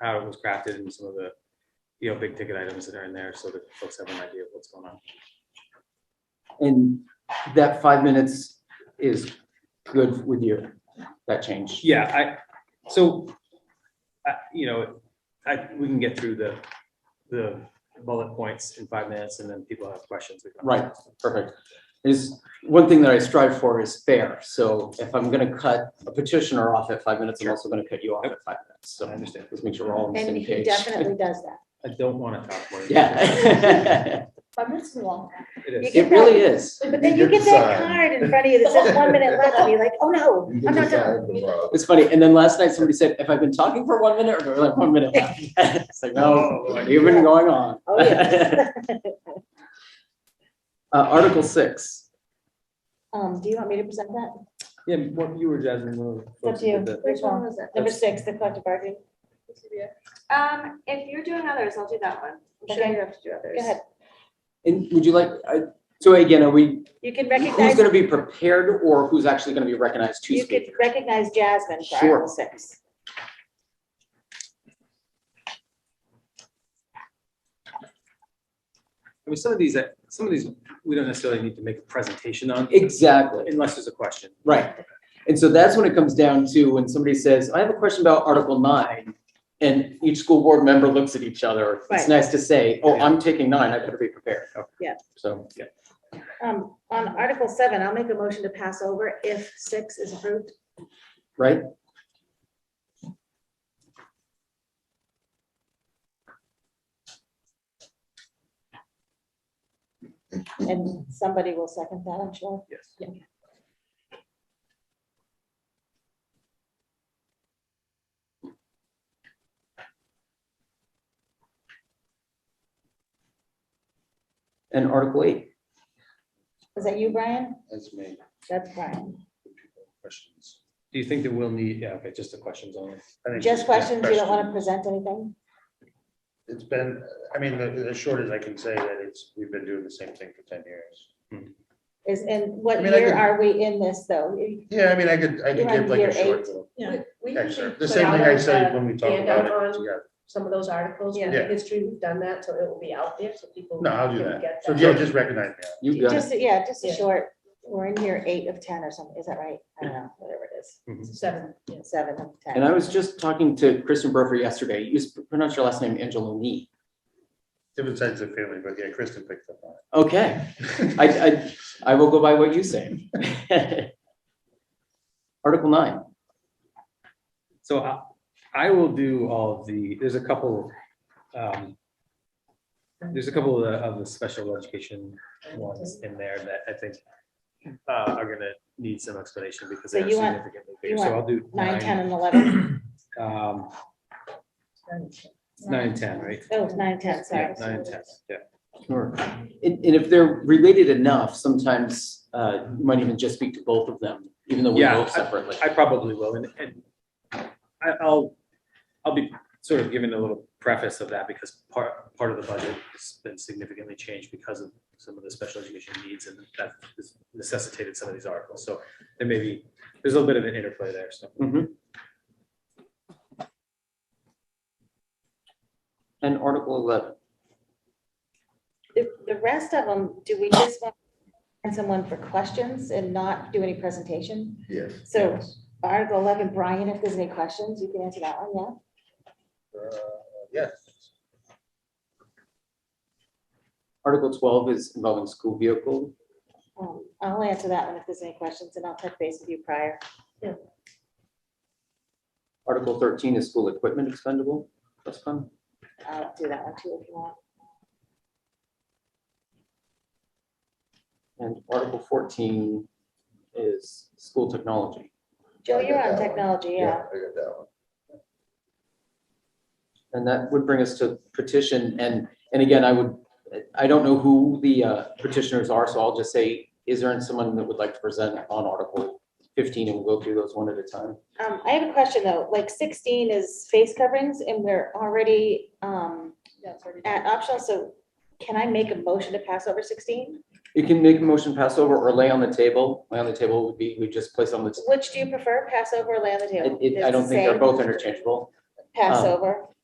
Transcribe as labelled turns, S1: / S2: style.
S1: how it was crafted and some of the, you know, big ticket items that are in there so that folks have an idea of what's going on.
S2: And that five minutes is good with you, that change?
S1: Yeah, I, so, I, you know, I, we can get through the, the bullet points in five minutes and then people have questions. we can-
S2: Right. Perfect. Is, one thing that I strive for is fair, so if I'm gonna cut a petitioner off at five minutes, I'm also gonna cut you off at five minutes,
S1: I
S2: so
S1: understand.
S2: let's make sure we're all on the
S3: And
S2: same
S3: he
S2: page.
S3: definitely does that.
S1: I don't want to talk more.
S2: Yeah.
S3: Five minutes is long.
S1: It is.
S3: You
S2: It really is.
S3: But then you get that card in front of you that says one minute left, and you're like, oh no,
S4: You
S3: I'm
S4: can
S3: not
S4: decide
S3: done.
S4: tomorrow.
S2: It's funny, and then last night somebody said, if I've been talking for one minute, or like one minute left. It's like,
S1: Oh,
S2: no, you've been going on.
S3: Oh, yeah.
S2: Uh, Article six.
S3: Um, do you want me to present that?
S1: Yeah, what you were Jasmine. one of the
S3: It's up
S1: folks
S3: to
S1: who did
S3: you.
S1: the-
S3: Which one was that? Number six, the collective bargaining.
S5: Um, if you're doing others, I'll do that one. I'm sure
S3: Okay.
S5: you have to do others.
S3: Go ahead.
S2: And would you like, I- so again, are we,
S3: You can
S2: who's
S3: recognize,
S2: gonna be prepared or who's actually gonna be recognized to
S3: you could
S2: speak?
S3: recognize Jasmine for
S2: Sure.
S3: Article six.
S1: I mean, some of these, uh, some of these, we don't necessarily need to make a presentation on
S2: Exactly,
S1: unless there's a question.
S2: right. And so that's when it comes down to when somebody says, I have a question about Article nine. And each school board member looks at each other. It's
S3: Right.
S2: nice to say, oh, I'm taking nine, I better be prepared.
S3: Yeah.
S2: So,
S3: Um, on Article seven, I'll make a motion to pass over if six is approved.
S2: right?
S3: And somebody will second that, I'm sure.
S1: Yes.
S2: And Article eight,
S3: Is that you, Brian?
S4: That's me.
S3: That's Brian.
S4: Questions.
S1: Do you think that we'll need, yeah, okay, just the questions only. I think-
S3: Just questions, you don't want to
S4: questions.
S3: present anything?
S4: It's been, I mean, the, the short as I can say that it's, we've been doing the same thing for ten years.
S3: Is, and what
S4: I mean, I
S3: year
S4: could-
S3: are we in this, though? You-
S4: Yeah, I mean, I could, I
S3: You're
S4: could
S3: on
S4: give like
S3: year
S4: a short
S3: eight.
S4: little
S6: Yeah.
S7: We usually
S4: excerpt. The
S7: put
S4: same
S7: out
S4: thing I
S7: a-
S4: say
S7: a
S4: when we talk
S7: handout
S4: about it
S7: on
S4: together.
S7: Some of those articles,
S6: Yeah.
S7: with
S4: Yeah.
S7: the history, we've done that, so it will be out there, so people.
S4: No, I'll do
S7: can
S4: that.
S7: get
S4: So, yeah, just recognize me.
S2: you got it.
S3: Just, yeah, just a
S7: Yeah.
S3: short, we're in year eight of ten or something, is that right? I don't know, whatever it is,
S7: Seven, yes.
S3: seven of
S2: And I
S3: ten.
S2: was just talking to Kristen Brofer yesterday. You s- pronounce your last name Angeloni.
S4: Different sides of the family, but yeah, Kristen picked up on
S2: Okay,
S4: it. Uh,
S2: I, I, I will go by what you say. Article nine,
S1: So I, I will do all of the, there's a couple, um, there's a couple of the, of the special education ones in there that I think uh, are gonna need some explanation because
S3: So
S1: they're
S3: you want-
S1: significantly bigger.
S3: you
S1: So
S3: want
S1: I'll do
S3: Nine, ten,
S1: nine,
S3: and eleven.
S1: um, nine, ten, right?
S3: Oh, it's nine, ten,
S1: Yeah,
S3: sorry.
S1: nine, ten, yeah.
S2: Sure. and, and if they're related enough, sometimes, uh, you might even just speak to both of them, even though we
S1: Yeah,
S2: vote separately.
S1: I probably will, and, and I, I'll, I'll be sort of giving a little preface of that because part, part of the budget has been significantly changed because of some of the special education needs and that has necessitated some of these articles, so there may be, there's a little bit of an interplay there, so.
S2: Mhm. And Article eleven,
S3: The, the rest of them, do we just want to find someone for questions and not do any presentation?
S4: Yes.
S3: So Article eleven, Brian, if there's any questions, you can answer that one, yeah?
S4: Yes.
S2: Article twelve is involving school vehicle.
S3: Um, I'll answer that one if there's any questions, and I'll touch base with you prior.
S2: Article thirteen is school equipment expendable. That's fun.
S3: I'll do that one too if you want.
S2: And Article fourteen is school technology.
S3: Joe,
S4: I got
S3: you're on
S4: that one.
S3: technology, yeah.
S4: got that one.
S2: And that would bring us to petition and, and again, I would, I don't know who the uh, petitioners are, so I'll just say, is there someone that would like to present on Article fifteen and we'll go through those one at a time?
S3: Um, I have a question though, like sixteen is face coverings and we're already, um, at optional, so can I make a motion to pass over sixteen?
S2: You can make a motion pass over or lay on the table. Lay on the table would be, we just place on the, t-
S3: Which do you prefer, pass over or lay on the
S2: it-
S3: table?
S2: it- I
S3: It's
S2: don't
S3: the
S2: think they're
S3: same.
S2: both interchangeable. Um,
S3: Passover.